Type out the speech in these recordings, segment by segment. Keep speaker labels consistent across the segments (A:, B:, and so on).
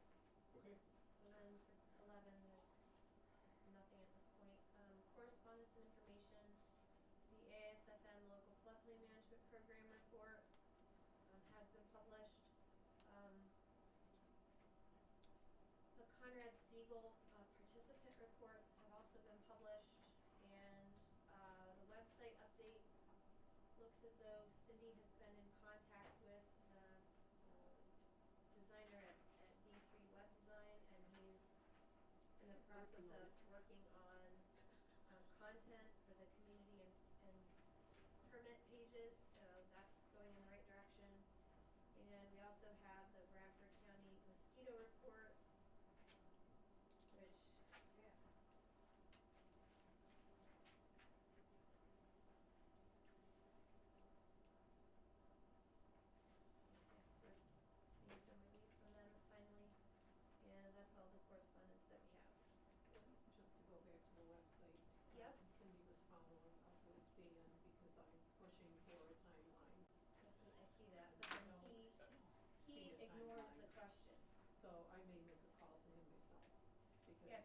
A: Um, Facility Management Program report, um, has been published. Um, the Conrad Siegel, uh, participant reports have also been published, and, uh, the website update looks as though Cindy has been in contact with the um, designer at, at D three Web Design, and he's in the process
B: Working on
A: of
B: it.
A: working on, um, content for the community and, and permit pages, so that's going in the right direction. And we also have the Bradford County mosquito report, which, yeah. I guess we're seeing some relief from them finally, and that's all the correspondence that we have.
B: Just to go back to the website. uh,
A: Yep.
B: Cindy was following up with Dan because I'm pushing for a timeline.
A: I see, I see that, but then
B: No.
A: he,
B: See
A: he
B: a
A: ignores
B: timeline.
A: the question.
B: So I may make a call to him myself because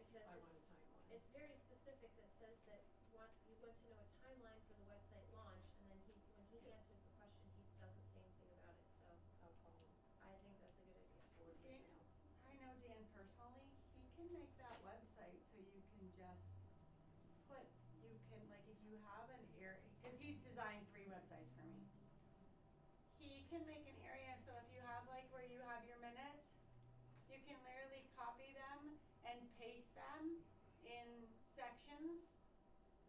A: because
B: I want a
A: it's-
B: timeline.
A: It's very specific that says that want, you want to know a timeline for the website launch, and then he, when he
B: Yeah.
A: answers the question, he doesn't say anything about it, so
B: I'll call him
A: I think that's a good idea.
B: or
C: Okay.
B: email.
C: I know Dan personally, he can make that website so you can just put, you can, like, if you have an area, cause he's designed three websites for me. He can make an area, so if you have like where you have your minutes, you can literally copy them and paste them in sections.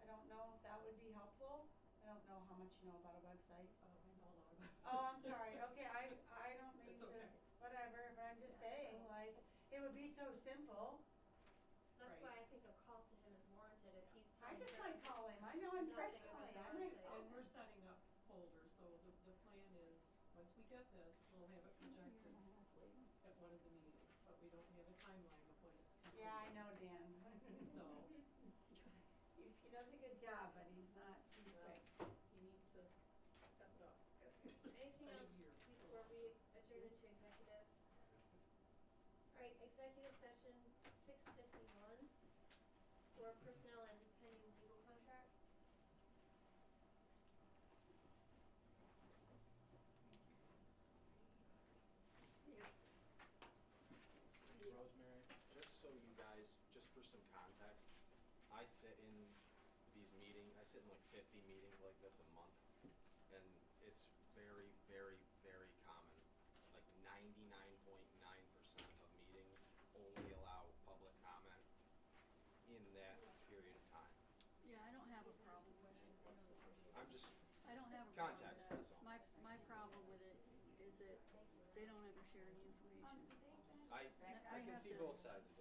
C: I don't know if that would be helpful, I don't know how much you know about a website.
B: Oh, I know a lot about.
C: Oh, I'm sorry, okay, I, I don't mean
B: It's
C: to,
B: okay.
C: whatever, but I'm just saying, like, it would be so simple.
A: That's why
B: Right.
A: I think a call to him is warranted if he's
C: I
A: telling
C: just
A: us-
C: might call him, I know him
A: Nothing about
C: personally,
A: the
C: I might
A: website.
C: call
B: And
C: him.
B: we're setting up folders, so the, the plan is, once we get this, we'll have it projected at one of the meetings, but we don't have a timeline of when it's completed.
C: oh, Yeah, I know Dan.
B: So
C: He's, he does a good job, but he's not too
B: Well,
C: quick.
B: he needs to step it up.
A: Anything
B: Been a
A: else
B: year.
A: before we adjourn into executive? Alright, executive session six fifty-one for personnel and pending legal contracts.
D: Rosemary, just so you guys, just for some context, I sit in these meetings, I sit in like fifty meetings like this a month. And it's very, very, very common. Like ninety-nine point nine percent of meetings only allow public comment in that period of time.
E: Yeah, I don't have a problem with it.
D: I'm just,
E: I don't have a problem with
D: Context,
E: it.
D: that's all.
E: My, my problem with it is that they don't ever share any information.
D: I,
E: Like,
D: I
E: I
D: can
E: have
D: see
E: to-
D: both sides of